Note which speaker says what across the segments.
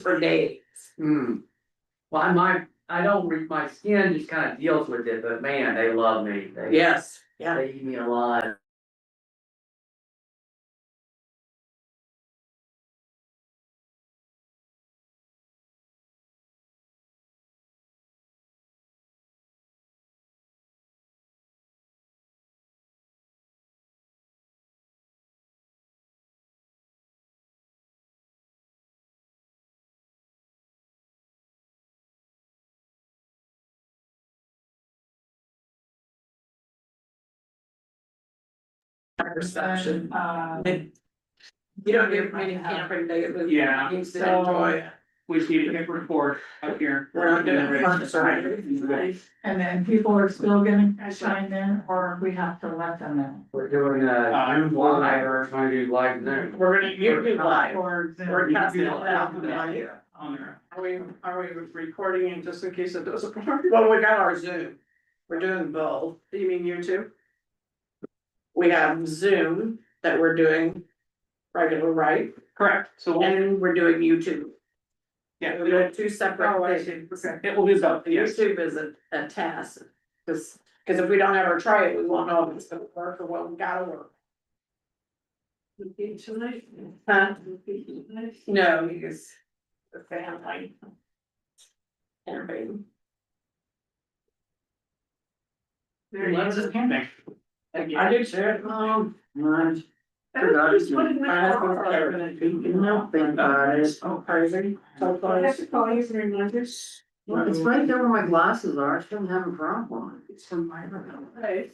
Speaker 1: for days.
Speaker 2: Hmm. Well, I might, I don't, re- my skin just kind of deals with it, but man, they love me. They,
Speaker 1: Yes, yeah.
Speaker 2: they eat me alive.
Speaker 1: Perception.
Speaker 3: Uh,
Speaker 1: You don't hear from any camping negatively.
Speaker 4: Yeah.
Speaker 1: You still enjoy it.
Speaker 4: We see a report up here.
Speaker 1: We're not doing it. That's right.
Speaker 3: and then people are still gonna chime in, or we have to let them in.
Speaker 2: We're doing a
Speaker 4: Uh,
Speaker 2: Zoom live, or trying to do live Zoom.
Speaker 1: We're gonna, you're gonna do live.
Speaker 3: Or. Zoom.
Speaker 1: We're casting it out.
Speaker 4: On there.
Speaker 5: Are we, are we recording it just in case it doesn't work?
Speaker 1: Well, we got our Zoom. We're doing both.
Speaker 5: You mean YouTube?
Speaker 1: We have Zoom that we're doing regular, right?
Speaker 4: Correct, so we'll-
Speaker 1: And we're doing YouTube.
Speaker 4: yeah,
Speaker 1: We're doing two
Speaker 3: Oh,
Speaker 1: separate things.
Speaker 4: it will be about, yes,
Speaker 1: YouTube is a, a task, cause, 'cause if we don't ever try it, we won't know if it's gonna work or what we gotta work.
Speaker 5: tonight?
Speaker 1: Huh? No, because the family. Everybody.
Speaker 5: There
Speaker 4: Lots of camping.
Speaker 2: I did share it, um, mine. Nothing about it, oh, crazy.
Speaker 5: call you for reminders.
Speaker 2: Well, it's right there where my glasses are, I shouldn't have a problem.
Speaker 5: It's from my room. Right.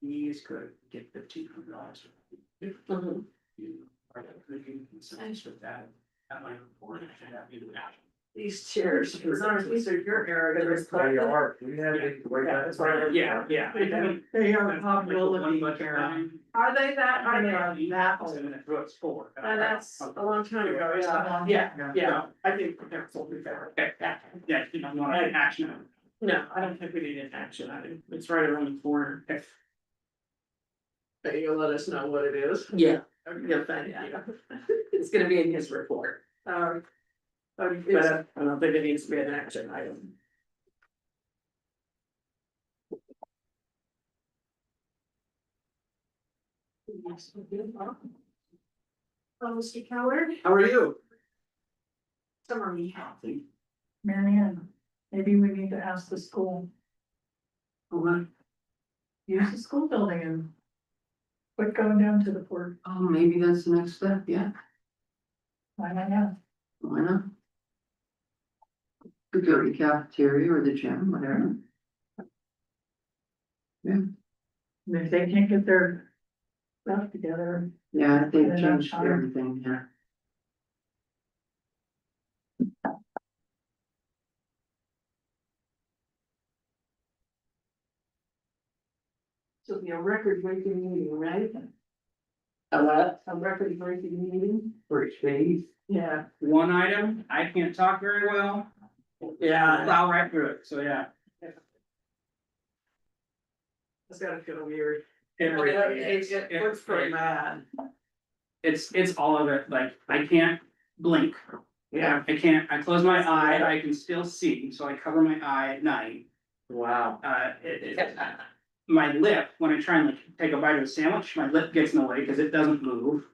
Speaker 4: He's good, get fifteen hundred dollars.
Speaker 5: Mm-hmm.
Speaker 1: Mhm.
Speaker 4: You are making consensus with that. At my report, I should have you do that.
Speaker 5: These chairs, these are, these are your era. they're just-
Speaker 2: There you are, you had it, the way
Speaker 5: Yeah,
Speaker 2: that
Speaker 5: that's
Speaker 2: is
Speaker 5: right.
Speaker 2: right.
Speaker 4: Yeah, yeah.
Speaker 5: They have- They are a
Speaker 4: Like the one
Speaker 5: probability.
Speaker 4: budget
Speaker 5: um,
Speaker 4: line,
Speaker 5: Are they that, are they
Speaker 4: and
Speaker 5: on
Speaker 4: then
Speaker 5: that old?
Speaker 4: it's what it's for.
Speaker 5: And that's a long time ago, yeah, yeah, yeah, I think that's what we got.
Speaker 4: Okay.
Speaker 5: Yeah.
Speaker 4: Yeah, you know, you want an action. item.
Speaker 5: No, I don't think we need an action item, it's right around the corner.
Speaker 4: Okay.
Speaker 5: But you'll let us know what it is.
Speaker 1: Yeah, you'll find out. It's gonna be in his report.
Speaker 5: Um. um, it's- I don't think it needs to be an action item. Hello, Oh, Mr. Keller.
Speaker 2: How are you?
Speaker 5: Summer me healthy.
Speaker 3: Mary Ann, maybe we need to ask the school,
Speaker 2: What?
Speaker 3: use the school building and. Quit going down to the port,
Speaker 2: Oh, maybe that's the next step, yeah,
Speaker 3: why not now?
Speaker 2: why not? Could go to the cafeteria or the gym, whatever.
Speaker 3: And If they can't get their stuff together,
Speaker 2: Yeah, I think
Speaker 3: Put it on
Speaker 2: changed
Speaker 3: fire.
Speaker 2: everything, yeah.
Speaker 5: So it'll be a record breaking meeting, right?
Speaker 1: A what?
Speaker 5: A record breaking meeting?
Speaker 2: For each phase.
Speaker 5: Yeah.
Speaker 4: One item, I can't talk very well,
Speaker 2: Uh,
Speaker 1: Yeah.
Speaker 4: plow right through it, so yeah.
Speaker 5: It's gotta feel weird.
Speaker 4: It's-
Speaker 5: It looks pretty bad.
Speaker 4: It's, it's all of it, like, I can't blink.
Speaker 5: Yeah.
Speaker 4: I can't, I close my eye, I can still see, so I cover my eye at night.
Speaker 2: Wow.
Speaker 4: Uh, it, it, my lip, when I try and like take a bite of a sandwich, my lip gets in the way because it doesn't move.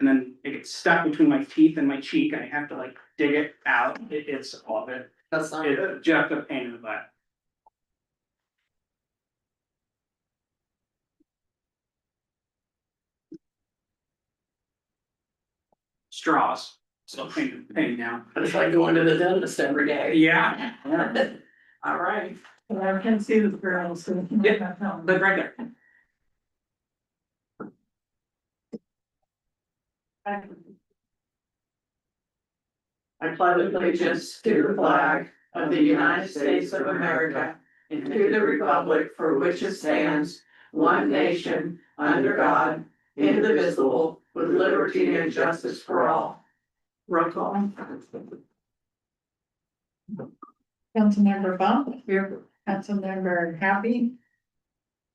Speaker 4: And then it gets stuck between my teeth and my cheek, and I have to like dig it out, it, it's all of it,
Speaker 1: That's not good.
Speaker 4: it's just a pain in the butt. Straws, so pain, pain now,
Speaker 1: It's like going to the dentist every day.
Speaker 4: yeah, yeah.
Speaker 5: All right.
Speaker 3: but I can see the girls, so. we can
Speaker 4: Yeah,
Speaker 3: back down.
Speaker 4: Look right there.
Speaker 1: I pledge allegiance to the flag of the United States of America and to the republic for which it stands, one nation, under God, indivisible, with liberty and justice for all.
Speaker 5: Roll call.
Speaker 3: Councilmember Bump. Here. Councilmember Happy,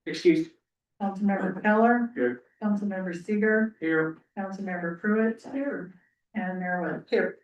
Speaker 4: Excuse
Speaker 3: Councilmember Keller.
Speaker 4: Here.
Speaker 3: Councilmember Seeger,
Speaker 4: here,
Speaker 3: Councilmember Pruitt. Here. and there was.